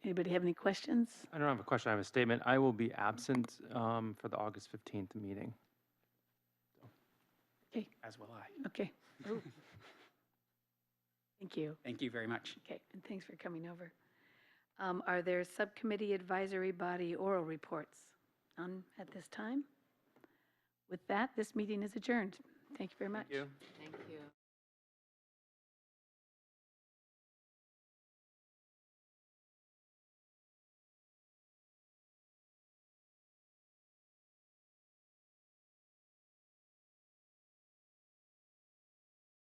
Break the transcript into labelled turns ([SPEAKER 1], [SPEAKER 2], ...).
[SPEAKER 1] Anybody have any questions?
[SPEAKER 2] I don't have a question, I have a statement. I will be absent um, for the August 15th meeting.
[SPEAKER 1] Okay.
[SPEAKER 2] As will I.
[SPEAKER 1] Okay.
[SPEAKER 3] Oh.
[SPEAKER 1] Thank you.
[SPEAKER 3] Thank you very much.
[SPEAKER 1] Okay, and thanks for coming over. Um, Are there subcommittee advisory body oral reports? None at this time? With that, this meeting is adjourned. Thank you very much.
[SPEAKER 2] Thank you.
[SPEAKER 4] Thank you.